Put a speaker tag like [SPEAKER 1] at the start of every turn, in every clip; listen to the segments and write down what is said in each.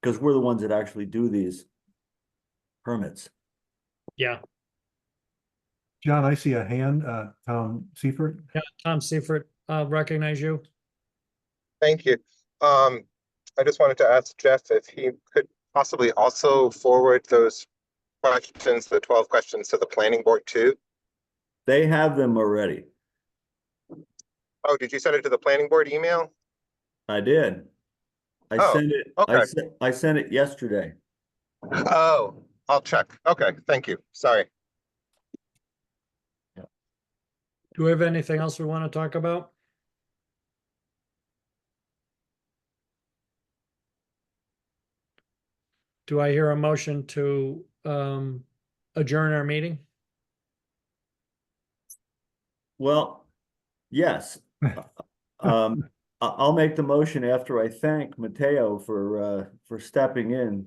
[SPEAKER 1] because we're the ones that actually do these permits.
[SPEAKER 2] Yeah,
[SPEAKER 3] John, I see a hand, uh, Tom Seifert.
[SPEAKER 2] yeah, Tom Seifert, uh, recognize you.
[SPEAKER 4] Thank you. Um, I just wanted to ask Jeff if he could possibly also forward those questions, the twelve questions to the planning board too.
[SPEAKER 1] They have them already.
[SPEAKER 4] Oh, did you send it to the planning board email?
[SPEAKER 1] I did. I
[SPEAKER 4] Oh,
[SPEAKER 1] sent it, I
[SPEAKER 4] okay.
[SPEAKER 1] sent, I sent it yesterday.
[SPEAKER 4] Oh, I'll check. Okay, thank you. Sorry.
[SPEAKER 2] Do we have anything else we want to talk about? Do I hear a motion to um adjourn our meeting?
[SPEAKER 1] Well, yes. Um, I, I'll make the motion after I thank Mateo for, uh, for stepping in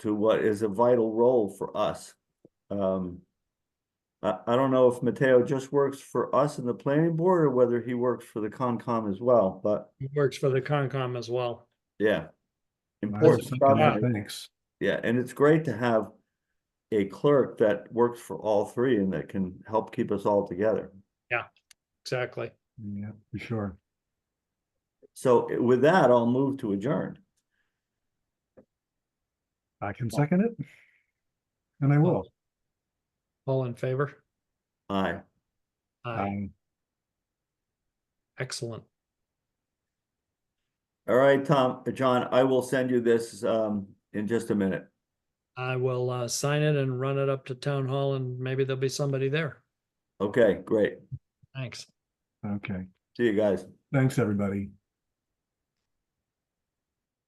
[SPEAKER 1] to what is a vital role for us. Um, I, I don't know if Mateo just works for us in the planning board or whether he works for the Concom as well, but
[SPEAKER 2] It Works for the Concom as well.
[SPEAKER 1] yeah.
[SPEAKER 3] I was
[SPEAKER 1] Important
[SPEAKER 3] thinking
[SPEAKER 1] stuff.
[SPEAKER 3] that, Thanks.
[SPEAKER 1] Yeah, and it's great to have a clerk that works for all three and that can help keep us all together.
[SPEAKER 2] Exactly.
[SPEAKER 3] Yeah, for sure.
[SPEAKER 1] So eh, with that, I'll move to adjourn.
[SPEAKER 3] I can second it. And I will.
[SPEAKER 2] All in favor?
[SPEAKER 1] Aye.
[SPEAKER 2] Aye.
[SPEAKER 3] Um,
[SPEAKER 2] Excellent.
[SPEAKER 1] All right, Tom, John, I will send you this um in just a minute.
[SPEAKER 2] I will uh sign it and run it up to town hall and maybe there'll be somebody there.
[SPEAKER 1] Okay, great.
[SPEAKER 2] Thanks.
[SPEAKER 3] Okay.
[SPEAKER 1] See you guys.
[SPEAKER 3] Thanks, everybody.